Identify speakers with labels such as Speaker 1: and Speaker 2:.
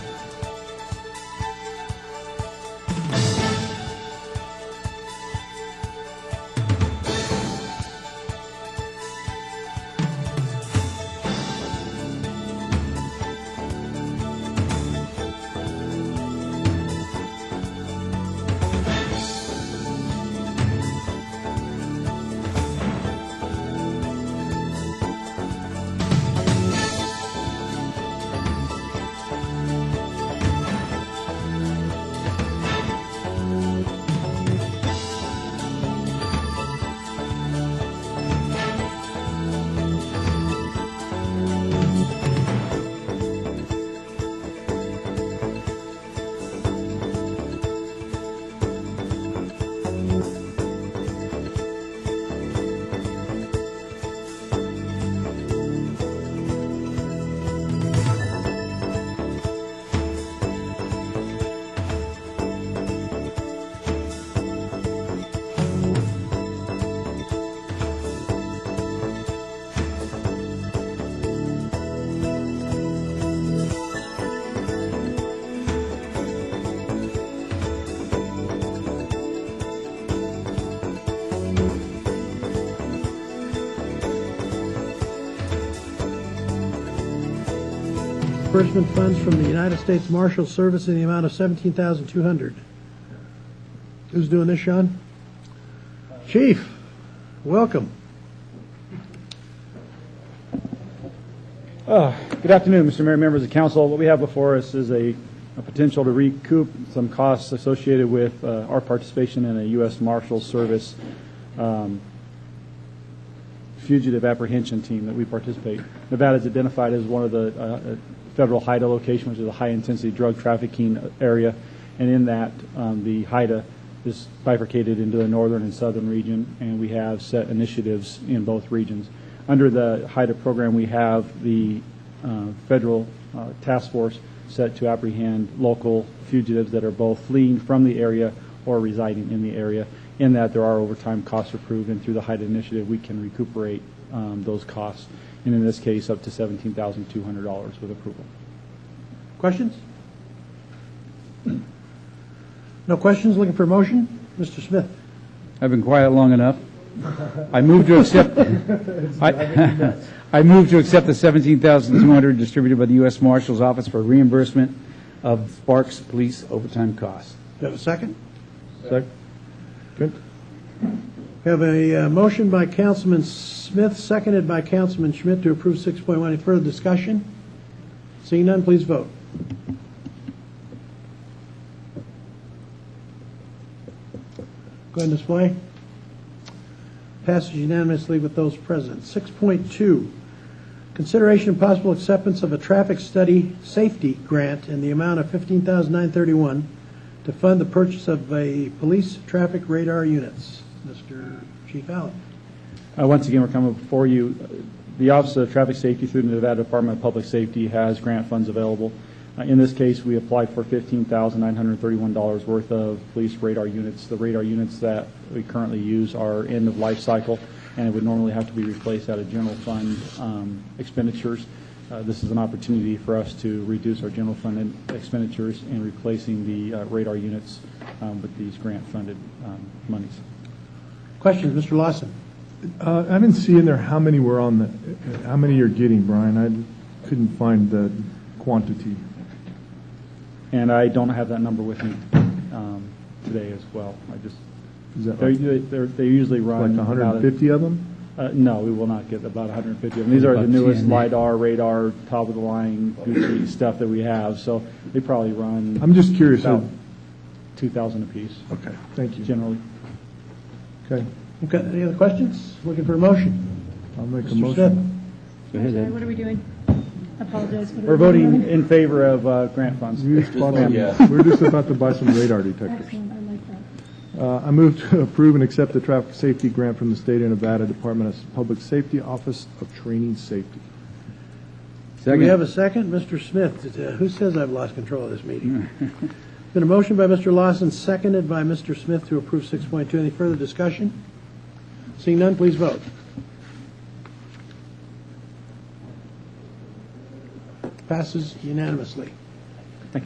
Speaker 1: disbursement funds from the United States Marshal Service in the amount of seventeen thousand two hundred. Who's doing this, Sean? Chief, welcome.
Speaker 2: Good afternoon, Mr. Mayor, members of council. What we have before us is a a potential to recoup some costs associated with uh, our participation in a U.S. Marshals Service um, fugitive apprehension team that we participate. Nevada is identified as one of the uh, uh, federal HIDA location, which is a high-intensity drug trafficking area, and in that, um, the HIDA is bifurcated into the northern and southern region, and we have set initiatives in both regions. Under the HIDA program, we have the uh, federal uh, task force set to apprehend local fugitives that are both fleeing from the area or residing in the area, in that there are overtime costs approved, and through the HIDE E initiative, we can recuperate um, those costs, and in this case, up to $17,200 with approval.
Speaker 1: Questions? No questions, looking for a motion? Mr. Smith?
Speaker 3: I've been quiet long enough. I move to accept, I I move to accept the 17,200 distributed by the U.S. Marshal's Office for reimbursement of Sparks Police overtime costs.
Speaker 1: Do you have a second? We have a uh, motion by Councilman Smith, seconded by Councilman Schmidt to approve 6.1. Any further discussion? Seeing none, please vote. Go ahead and display. Passes unanimously with those present. 6.2, consideration and possible acceptance of a traffic study safety grant in the amount of $15,931 to fund the purchase of a police traffic radar units. Mr. Chief Allen.
Speaker 2: Uh, Once again, we're coming before you. The Office of Traffic Safety through the Nevada Department of Public Safety has grant funds available. Uh, In this case, we applied for $15,931 worth of police radar units. The radar units that we currently use are end of life cycle, and it would normally have to be replaced out of general fund um, expenditures. Uh, This is an opportunity for us to reduce our general fund expenditures and replacing the uh, radar units um, with these grant-funded um, monies.
Speaker 1: Questions, Mr. Lawson?
Speaker 4: Uh, I didn't see in there how many were on the, how many you're getting, Brian. I couldn't find the quantity.
Speaker 2: And I don't have that number with me um, today as well. I just,
Speaker 4: Is that
Speaker 2: they're-
Speaker 4: like
Speaker 2: they're- they usually run.
Speaker 4: like
Speaker 2: about a-
Speaker 4: 150 of them?
Speaker 2: Uh, No, we will not get about 150 of them. These are the
Speaker 3: About
Speaker 2: newest
Speaker 3: 10.
Speaker 2: LiDAR, radar, top-of-the-line Gucci stuff that we have, so they probably run
Speaker 4: I'm just curious.
Speaker 2: about
Speaker 4: how-
Speaker 2: 2,000 apiece
Speaker 4: Okay, thank you.
Speaker 2: generally.
Speaker 4: Okay,
Speaker 1: Okay, any other questions? Looking for a motion?
Speaker 4: I'll make a
Speaker 1: Mr. Smith?
Speaker 4: motion.
Speaker 3: ahead, Ed.
Speaker 5: Sorry, What are we doing? I apologize. What are
Speaker 2: We're
Speaker 5: we doing?
Speaker 2: voting in favor of uh, grant funds.
Speaker 4: We just bought some-
Speaker 6: yeah.
Speaker 4: We're just about to buy some radar detectors.
Speaker 5: Excellent, I like that.
Speaker 4: Uh, I move to approve and accept the traffic safety grant from the State of Nevada Department of Public Safety Office of Training Safety.
Speaker 1: Do we have
Speaker 3: Second.
Speaker 1: a second? Mr. Smith, uh, who says I've lost control of this meeting? Been a motion by Mr. Lawson, seconded by Mr. Smith to approve 6.2. Any further discussion? Seeing none, please vote. Passes unanimously.